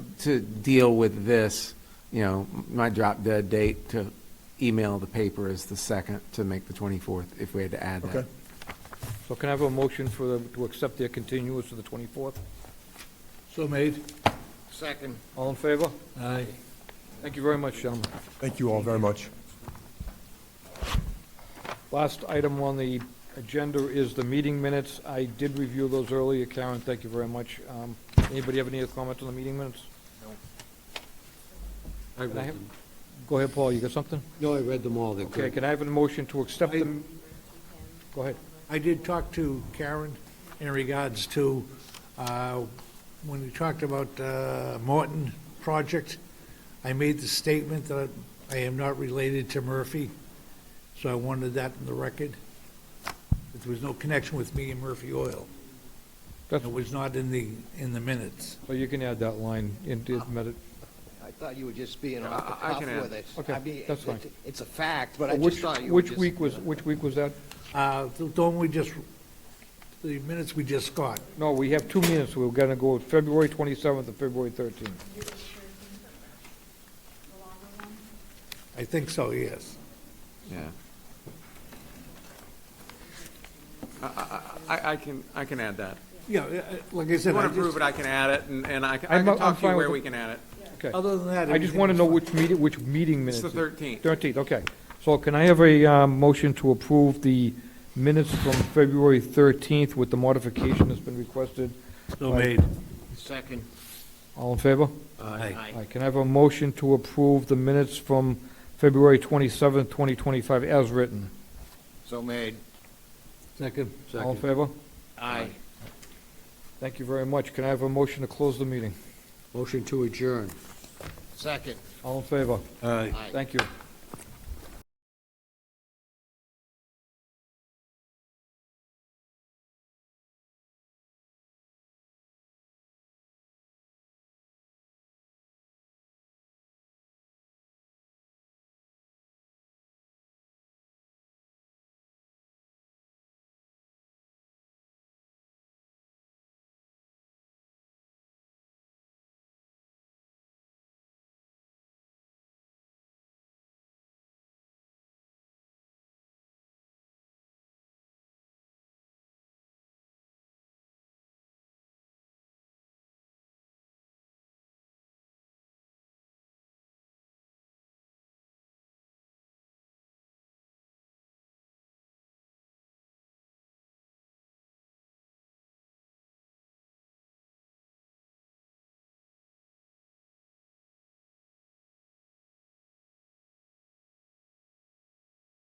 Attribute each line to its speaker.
Speaker 1: to deal with this, you know, my drop dead date to email the paper is the second to make the 24th, if we had to add that.
Speaker 2: Okay.
Speaker 3: So can I have a motion for, the- to accept their continuance to the 24th?
Speaker 4: So made.
Speaker 5: Second.
Speaker 3: All in favor?
Speaker 4: Aye.
Speaker 3: Thank you very much, gentlemen.
Speaker 2: Thank you all very much.
Speaker 3: Last item on the agenda is the meeting minutes. I did review those earlier, Karen, thank you very much. Um, Anybody have any other comments on the meeting minutes?
Speaker 4: I read
Speaker 3: Can I have-
Speaker 4: them.
Speaker 3: Go ahead, Paul, you got something?
Speaker 4: No, I read them all. They're
Speaker 3: Okay,
Speaker 4: good.
Speaker 3: can I have a motion to accept them? Go ahead.
Speaker 6: I did talk to Karen in regards to, uh, when we talked about uh, Morton project, I made the statement that I am not related to Murphy, so I wanted that in the record. That There was no connection with me and Murphy Oil.
Speaker 3: That's-
Speaker 6: It was not in the, in the minutes.
Speaker 3: So you can add that line into the minute.
Speaker 5: I thought you were just being off the
Speaker 1: I- I
Speaker 5: cuff
Speaker 1: can add-
Speaker 5: with it.
Speaker 3: Okay,
Speaker 5: I mean,
Speaker 3: that's fine.
Speaker 5: it- It's a fact, but I just
Speaker 3: Which,
Speaker 5: thought you were
Speaker 3: which
Speaker 5: just.
Speaker 3: week was, which week was that?
Speaker 6: Uh, The the one we just, the minutes we just got,
Speaker 3: No, we have two minutes, we're gonna go with February 27th and February 13th.
Speaker 6: I think so, yes.
Speaker 1: Yeah. I- I, I, I can, I can add that.
Speaker 6: Yeah, uh, like
Speaker 1: If
Speaker 6: I
Speaker 1: you
Speaker 6: said, I
Speaker 1: want to approve
Speaker 6: just,
Speaker 1: it, I can add it, and and I can I
Speaker 3: I'm-
Speaker 1: can
Speaker 3: I'm
Speaker 1: talk to
Speaker 3: fine
Speaker 1: you where
Speaker 3: with
Speaker 1: we
Speaker 3: it.
Speaker 1: can add it.
Speaker 3: Okay.
Speaker 6: other than that.
Speaker 3: I just
Speaker 6: everything
Speaker 3: want to
Speaker 6: was
Speaker 3: know
Speaker 6: fine.
Speaker 3: which meeting, which meeting
Speaker 1: It's
Speaker 3: minutes.
Speaker 1: the 13th.
Speaker 3: 13th, okay. So can I have a uh, motion to approve the minutes from February 13th with the modification that's been requested?
Speaker 6: So made.
Speaker 5: Second.
Speaker 3: All in favor?
Speaker 6: Aye.
Speaker 3: Aye. Can I have a motion to approve the minutes from February 27th, 2025, as written?
Speaker 5: So made.
Speaker 4: Second.
Speaker 3: All in favor?
Speaker 5: Aye.
Speaker 3: Thank you very much. Can I have a motion to close the meeting?
Speaker 4: Motion to adjourn.
Speaker 5: Second.
Speaker 3: All in favor?
Speaker 4: Aye.
Speaker 5: Aye.
Speaker 3: Thank you.